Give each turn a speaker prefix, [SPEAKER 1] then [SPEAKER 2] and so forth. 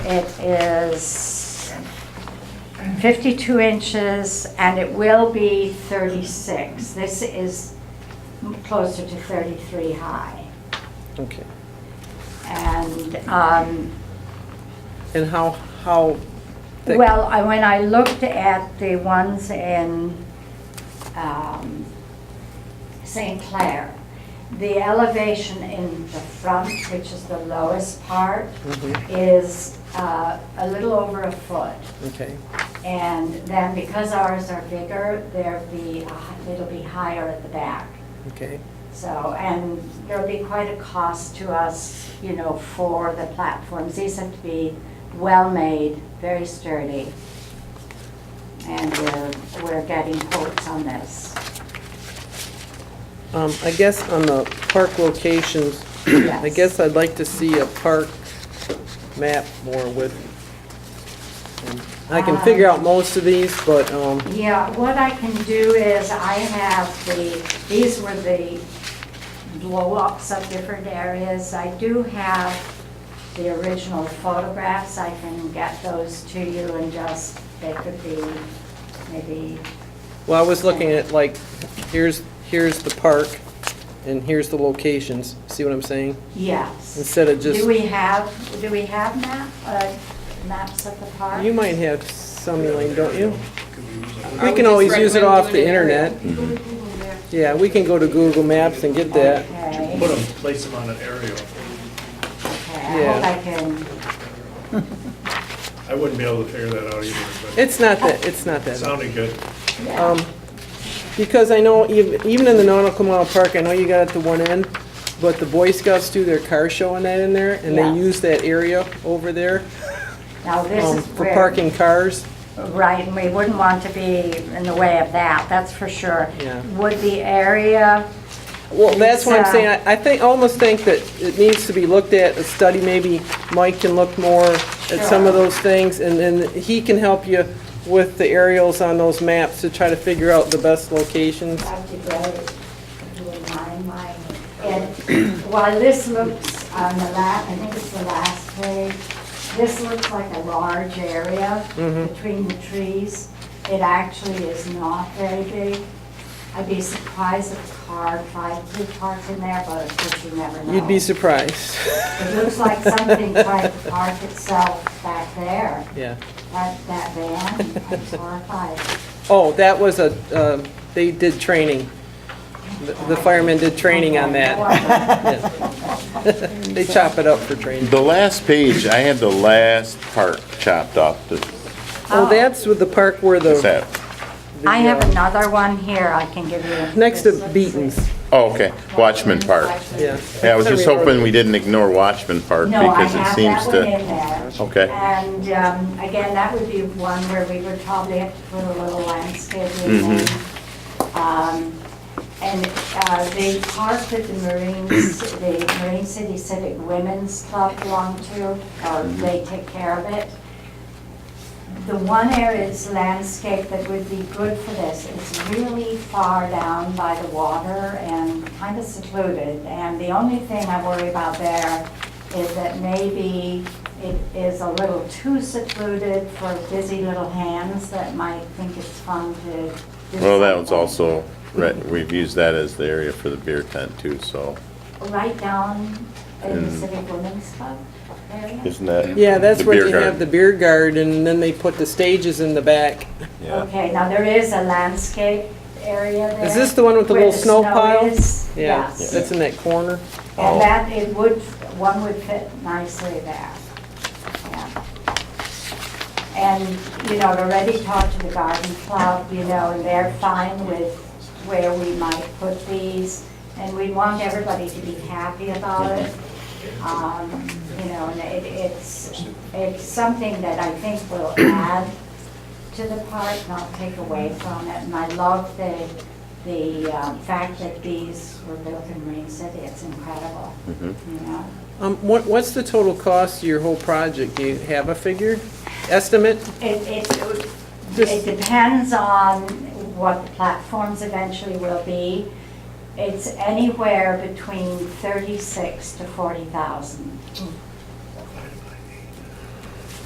[SPEAKER 1] It is 52 inches and it will be 36. This is closer to 33 high.
[SPEAKER 2] Okay.
[SPEAKER 1] And, um,
[SPEAKER 2] And how, how thick?
[SPEAKER 1] well, I- when I looked at the ones in um, St. Clair, the elevation in the front, which is the lowest part,
[SPEAKER 2] Mhm,
[SPEAKER 1] is uh, a little over a foot.
[SPEAKER 2] Okay,
[SPEAKER 1] And then because ours are bigger, there'll be, a hi- it'll be higher at the back.
[SPEAKER 2] okay,
[SPEAKER 1] So, and there'll be quite a cost to us, you know, for the platforms. These have to be well-made, very sturdy. And we're, we're getting quotes on this.
[SPEAKER 2] um, I guess on the park locations, I
[SPEAKER 1] Yes.
[SPEAKER 2] guess I'd like to see a park map more with. um, I can figure out most of these, but, um,
[SPEAKER 1] Yeah, what I can do is I have the, these were the blow-ups of different areas. I do have the original photographs. I can get those to you and just, they could be maybe,
[SPEAKER 2] well, I was looking at like, here's, here's the park and here's the locations, see what I'm saying?
[SPEAKER 1] yes.
[SPEAKER 2] Instead of just,
[SPEAKER 1] Do we have, do we have map, uh, maps of the park?
[SPEAKER 2] you might have some, Elaine, don't you?
[SPEAKER 3] Are
[SPEAKER 2] We
[SPEAKER 3] we
[SPEAKER 2] can
[SPEAKER 3] just
[SPEAKER 2] always use it
[SPEAKER 3] recommend
[SPEAKER 2] off the
[SPEAKER 3] doing it or-
[SPEAKER 2] internet. Yeah, we can go to Google Maps and get that.
[SPEAKER 1] Okay,
[SPEAKER 4] Put them, place them on an aerial.
[SPEAKER 1] okay, I hope
[SPEAKER 2] Yeah.
[SPEAKER 1] I can,
[SPEAKER 4] I wouldn't be able to figure that out either, but
[SPEAKER 2] It's not that, it's not
[SPEAKER 4] it
[SPEAKER 2] that.
[SPEAKER 4] sounded good.
[SPEAKER 1] yeah,
[SPEAKER 2] Um, Because I know, ev- even in the Nautical Mile Park, I know you got it to one end, but the Boy Scouts do their car show and that in there, and they
[SPEAKER 1] Yeah.
[SPEAKER 2] use that area over there
[SPEAKER 1] now this
[SPEAKER 2] um,
[SPEAKER 1] is
[SPEAKER 2] for
[SPEAKER 1] where.
[SPEAKER 2] parking cars.
[SPEAKER 1] Right, and we wouldn't want to be in the way of that, that's for sure.
[SPEAKER 2] Yeah.
[SPEAKER 1] Would the area,
[SPEAKER 2] Well, that's what I'm
[SPEAKER 1] It's, uh,
[SPEAKER 2] saying, I I think, almost think that it needs to be looked at, a study, maybe Mike can look more at some
[SPEAKER 1] Sure.
[SPEAKER 2] of those things, and then he can help you with the aerials on those maps to try to figure out the best locations.
[SPEAKER 1] that'd be great, if you wouldn't mind my, and while this looks on the last, I think it's the last page, this looks like a large area
[SPEAKER 2] Mm-hmm.
[SPEAKER 1] between the trees. It actually is not very big. I'd be surprised if a car tried to park in there, but of course you never know.
[SPEAKER 2] You'd be surprised.
[SPEAKER 1] It looks like something tried to park itself back there.
[SPEAKER 2] Yeah.
[SPEAKER 1] That, that van, I'm horrified.
[SPEAKER 2] Oh, that was a, um, they did training. The the firemen did training on that. They chop it up for training.
[SPEAKER 5] The last page, I had the last part chopped off. the-
[SPEAKER 2] Oh, that's with the park where
[SPEAKER 5] What's
[SPEAKER 2] the,
[SPEAKER 5] that?
[SPEAKER 1] I have another one here I can give you.
[SPEAKER 2] next to Beaton's,
[SPEAKER 5] Oh, okay, Watchman Park.
[SPEAKER 2] yeah.
[SPEAKER 5] Yeah, I was just hoping we didn't ignore Watchman Park
[SPEAKER 1] No, I
[SPEAKER 5] because it
[SPEAKER 1] have
[SPEAKER 5] seems
[SPEAKER 1] that one in
[SPEAKER 5] to,
[SPEAKER 1] there.
[SPEAKER 5] okay,
[SPEAKER 1] And um, again, that would be one where we would probably have to put a little landscaping in.
[SPEAKER 5] Mm-hmm.
[SPEAKER 1] Um, And uh, the park that the Marines, the Marine City Civic Women's Club belong to, uh,
[SPEAKER 5] Mm-hmm.
[SPEAKER 1] they take care of it. The one area is landscape that would be good for this, it's really far down by the water and kind of secluded. And the only thing I worry about there is that maybe it is a little too secluded for busy little hands that might think it's fun to do
[SPEAKER 5] well, that was
[SPEAKER 1] something.
[SPEAKER 5] also, right, we've used that as the area for the beer tent too, so
[SPEAKER 1] Right down in the
[SPEAKER 5] Mm.
[SPEAKER 1] Civic Women's Club area?
[SPEAKER 5] isn't that?
[SPEAKER 2] Yeah, that's
[SPEAKER 5] the
[SPEAKER 2] where
[SPEAKER 5] beer
[SPEAKER 2] you have the
[SPEAKER 5] garden?
[SPEAKER 2] beer garden, and then they put the stages in the back.
[SPEAKER 5] Yeah.
[SPEAKER 1] Okay, now there is a landscape area there.
[SPEAKER 2] Is this the one with the
[SPEAKER 1] where
[SPEAKER 2] little snow pile?
[SPEAKER 1] is.
[SPEAKER 2] Yeah,
[SPEAKER 1] Yes.
[SPEAKER 2] that's in that corner.
[SPEAKER 5] Oh.
[SPEAKER 1] And that, it would, one would fit nicely there. Yeah. And, you know, I've already talked to the garden club, you know, and they're fine with where we might put these. And we want everybody to be happy about it. Um, You know, and it, it's, it's something that I think will add to the park, not take away from it. And I love the, the um, fact that these were built in Marine City, it's incredible,
[SPEAKER 5] Mhm.
[SPEAKER 1] you know?
[SPEAKER 2] Um, what, what's the total cost of your whole project? Do you have a figure, estimate?
[SPEAKER 1] It, it, it
[SPEAKER 2] Just-
[SPEAKER 1] depends on what the platforms eventually will be. It's anywhere between thirty-six to forty thousand.